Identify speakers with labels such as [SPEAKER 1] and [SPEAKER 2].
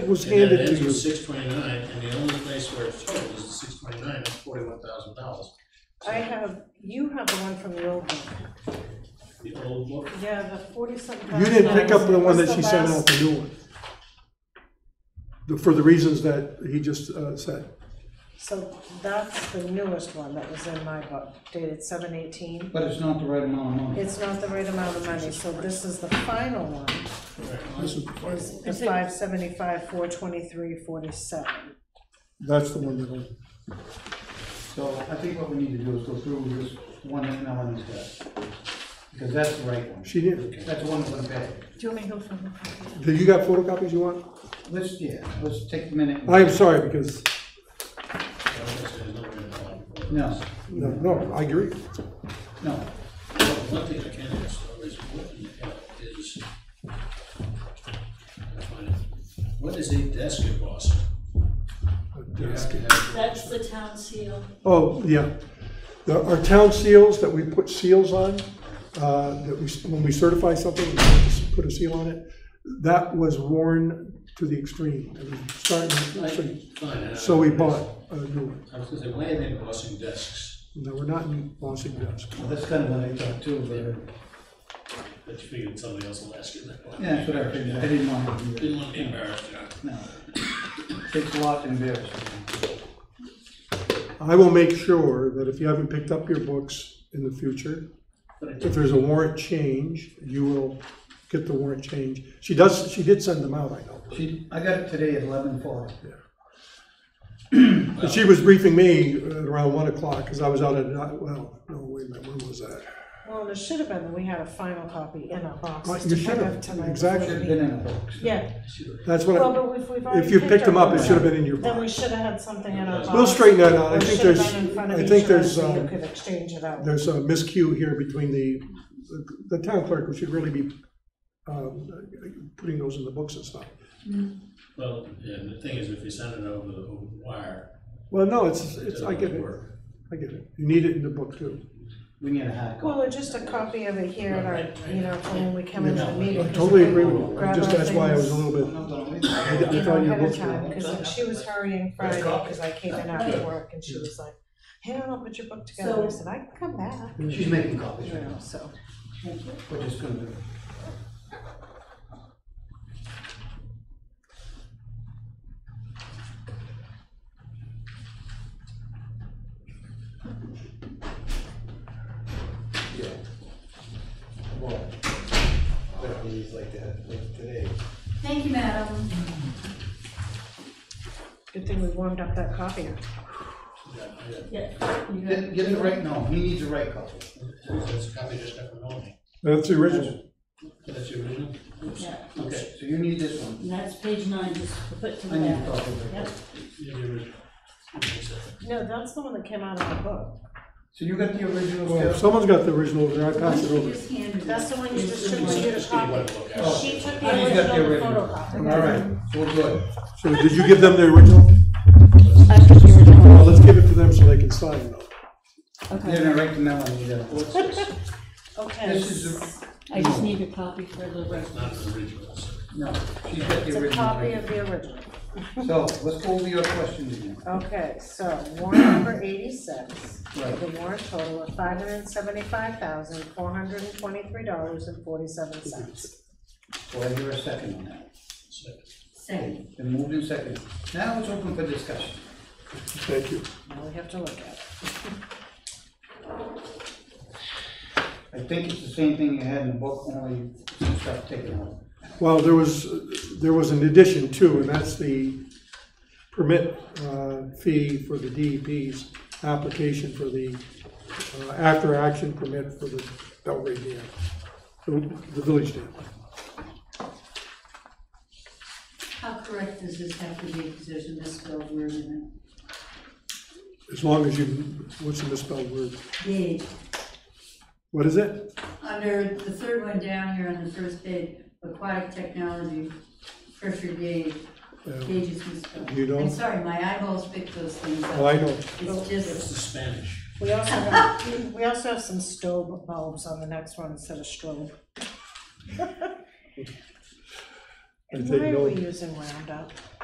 [SPEAKER 1] It was
[SPEAKER 2] And that
[SPEAKER 1] handed to
[SPEAKER 2] ends with
[SPEAKER 1] you.
[SPEAKER 2] six twenty-nine, and the only place where it's total is the six twenty-nine, it's forty-one thousand dollars.
[SPEAKER 3] I have, you have the one from the old one.
[SPEAKER 2] The old book,
[SPEAKER 3] Yeah, the forty-something
[SPEAKER 1] You
[SPEAKER 3] thousand
[SPEAKER 1] didn't pick up the
[SPEAKER 3] dollars.
[SPEAKER 1] one that
[SPEAKER 3] What's
[SPEAKER 1] she
[SPEAKER 3] the
[SPEAKER 1] sent
[SPEAKER 3] last-
[SPEAKER 1] out, the new one. The- For the reasons that he just uh, said.
[SPEAKER 3] So that's the newest one that was in my book, dated seven eighteen.
[SPEAKER 4] But it's not the right amount of money.
[SPEAKER 3] It's not the right amount of money, so this is the final one,
[SPEAKER 1] This is-
[SPEAKER 3] is the five seventy-five, four twenty-three, forty-seven.
[SPEAKER 1] That's the one that I.
[SPEAKER 4] So I think what we need to do is go through this one that Melanie's got, because that's the right one.
[SPEAKER 1] She did.
[SPEAKER 4] That's the one that's on the back.
[SPEAKER 3] Do you want me to go from?
[SPEAKER 1] Do you got photocopies you want?
[SPEAKER 4] Let's, yeah, let's take a minute.
[SPEAKER 1] I am sorry because,
[SPEAKER 4] No,
[SPEAKER 1] no, no, I agree.
[SPEAKER 4] no.
[SPEAKER 2] One thing I can ask, though, is what in the hell is, I find it, what is a desk embossing? You have to have-
[SPEAKER 5] That's the town seal.
[SPEAKER 1] Oh, yeah. The- Our town seals that we put seals on, uh, that we, when we certify something, we put a seal on it, that was worn to the extreme. It was starting to-
[SPEAKER 2] Fine, I-
[SPEAKER 1] So we bought a new one.
[SPEAKER 2] I was gonna say, why are they embossing desks?
[SPEAKER 1] No, we're not in Boston Desk.
[SPEAKER 4] Well, That's kind of what I thought too, but,
[SPEAKER 2] But you figured somebody else will ask you that one.
[SPEAKER 4] yeah, that's what I figured. I didn't want to do
[SPEAKER 2] Didn't want to be embarrassed, you know.
[SPEAKER 4] that. No. Takes a lot to embarrass me.
[SPEAKER 1] I will make sure that if you haven't picked up your books in the future,
[SPEAKER 2] But I
[SPEAKER 1] if there's a warrant change, you will get the warrant change. She does, she did send them out, I know.
[SPEAKER 4] She, I got it today at eleven forty.
[SPEAKER 1] And she was briefing me at around one o'clock, because I was out at, night- well, no, wait a minute, when was that?
[SPEAKER 3] Well, it should have been, that we had a final copy in our
[SPEAKER 1] You
[SPEAKER 3] boxes to
[SPEAKER 1] should
[SPEAKER 3] pick
[SPEAKER 1] have,
[SPEAKER 3] up tonight.
[SPEAKER 1] exactly.
[SPEAKER 4] Should have been in the books.
[SPEAKER 3] Yeah,
[SPEAKER 1] That's what,
[SPEAKER 3] well,
[SPEAKER 1] I-
[SPEAKER 3] but if we've already.
[SPEAKER 1] if you picked them up, it
[SPEAKER 3] one,
[SPEAKER 1] should have been in your
[SPEAKER 3] Then we
[SPEAKER 1] box.
[SPEAKER 3] should have had something in our box.
[SPEAKER 1] We'll straighten that out. I
[SPEAKER 3] Or it
[SPEAKER 1] think
[SPEAKER 3] should have
[SPEAKER 1] there's-
[SPEAKER 3] been in front of
[SPEAKER 1] I
[SPEAKER 3] each
[SPEAKER 1] think
[SPEAKER 3] of
[SPEAKER 1] there's,
[SPEAKER 3] us so
[SPEAKER 1] um,
[SPEAKER 3] You could exchange it out.
[SPEAKER 1] There's a miscue here between the, the town clerk, who should really be, um, putting those in the books and stuff.
[SPEAKER 2] Well, and the thing is, if you send it over the wire,
[SPEAKER 1] Well, no, it's,
[SPEAKER 2] it
[SPEAKER 1] it's, I get
[SPEAKER 2] doesn't
[SPEAKER 1] it,
[SPEAKER 2] work.
[SPEAKER 1] I get it. You need it in the book too.
[SPEAKER 4] We need a hard copy.
[SPEAKER 3] Well, or just a copy of it here at our, you know, from when we come into the meeting.
[SPEAKER 1] I totally agree with you. I
[SPEAKER 3] Grab
[SPEAKER 1] Just,
[SPEAKER 3] our
[SPEAKER 1] that's why I was a
[SPEAKER 3] things,
[SPEAKER 1] little
[SPEAKER 4] I'm
[SPEAKER 1] bit,
[SPEAKER 4] not gonna leave. it.
[SPEAKER 1] I
[SPEAKER 3] You
[SPEAKER 1] thought
[SPEAKER 3] know,
[SPEAKER 1] you
[SPEAKER 3] ahead
[SPEAKER 1] booked
[SPEAKER 3] of
[SPEAKER 1] it.
[SPEAKER 3] time, because she was hurrying Friday, because I came in after work, and she was like, hey, I don't know, put your book together, I
[SPEAKER 5] So-
[SPEAKER 3] said, I can come back,
[SPEAKER 4] She's making copies
[SPEAKER 3] you
[SPEAKER 4] right
[SPEAKER 3] know,
[SPEAKER 4] now.
[SPEAKER 3] so.
[SPEAKER 4] We're just gonna do it.
[SPEAKER 6] Yeah. Well, better days like that, like today.
[SPEAKER 5] Thank you, madam.
[SPEAKER 3] Good thing we warmed up that copier.
[SPEAKER 2] Yeah, yeah.
[SPEAKER 5] Yeah.
[SPEAKER 4] Get, get the right, no, he needs the right copy.
[SPEAKER 2] That's a copy just got from Melanie.
[SPEAKER 1] that's the original.
[SPEAKER 2] That's your original? Oops.
[SPEAKER 5] Yeah.
[SPEAKER 2] Okay.
[SPEAKER 4] So you need this one.
[SPEAKER 5] And that's page nine, just put to
[SPEAKER 4] I
[SPEAKER 5] the
[SPEAKER 4] need
[SPEAKER 5] back.
[SPEAKER 4] a copy of
[SPEAKER 5] Yep.
[SPEAKER 4] it.
[SPEAKER 2] Yeah, the original.
[SPEAKER 3] No, that's the one that came out of the book.
[SPEAKER 4] So you got the original
[SPEAKER 1] Well, if
[SPEAKER 4] stuff?
[SPEAKER 1] someone's got the original, there, I pass it
[SPEAKER 5] She
[SPEAKER 1] over.
[SPEAKER 5] just handed
[SPEAKER 3] That's the
[SPEAKER 5] it.
[SPEAKER 3] one you
[SPEAKER 2] Just
[SPEAKER 3] distributed a
[SPEAKER 2] give you one
[SPEAKER 3] copy.
[SPEAKER 2] to look
[SPEAKER 4] Oh.
[SPEAKER 2] at.
[SPEAKER 3] She took
[SPEAKER 4] Oh,
[SPEAKER 3] the
[SPEAKER 4] you got the
[SPEAKER 3] original
[SPEAKER 4] original. All
[SPEAKER 3] photocopy.
[SPEAKER 4] right, we're good.
[SPEAKER 1] So did you give them the original?
[SPEAKER 7] I took the original.
[SPEAKER 1] Well, let's give it to them so they can sign it.
[SPEAKER 4] They're gonna write the melody down.
[SPEAKER 2] What's this?
[SPEAKER 3] Okay,
[SPEAKER 4] This is, the-
[SPEAKER 7] I just need a copy for the record.
[SPEAKER 2] Not an original. so
[SPEAKER 4] no, she's got
[SPEAKER 3] it's
[SPEAKER 4] the
[SPEAKER 3] a copy
[SPEAKER 4] original.
[SPEAKER 3] of the original.
[SPEAKER 4] So let's go over your questions again.
[SPEAKER 3] Okay, so warrant number eighty-six,
[SPEAKER 4] Right.
[SPEAKER 3] the warrant total of five hundred and seventy-five thousand, four hundred and twenty-three dollars and forty-seven cents.
[SPEAKER 4] So I hear a second on that.
[SPEAKER 2] second.
[SPEAKER 5] Second.
[SPEAKER 4] Been moved in second. Now it's open for discussion.
[SPEAKER 1] Thank you.
[SPEAKER 3] Now we have to look at it.
[SPEAKER 4] I think it's the same thing you had in the book, only some stuff taken out.
[SPEAKER 1] Well, there was, there was an addition too, and that's the permit uh, fee for the DEP's application for the uh, after-action permit for the Belgrade Dam, the- the village dam.
[SPEAKER 5] How correct does this have to be, because there's a misspelled word in
[SPEAKER 1] As long as you, what's the misspelled word?
[SPEAKER 5] it? Did,
[SPEAKER 1] What is it?
[SPEAKER 5] under the third one down here on the first page, aquatic technology, pressure gauge,
[SPEAKER 1] Uh,
[SPEAKER 5] gauge is misspelled.
[SPEAKER 1] You don't-
[SPEAKER 5] I'm sorry, my eyeballs pick those things
[SPEAKER 1] Well,
[SPEAKER 5] up.
[SPEAKER 1] I know,
[SPEAKER 5] It's
[SPEAKER 2] What's
[SPEAKER 5] just,
[SPEAKER 2] the Spanish?
[SPEAKER 3] We also have, we also have some strobe bulbs on the next one instead of strobe.
[SPEAKER 1] I
[SPEAKER 3] And
[SPEAKER 1] take
[SPEAKER 3] why are
[SPEAKER 1] no-
[SPEAKER 3] we using Roundup?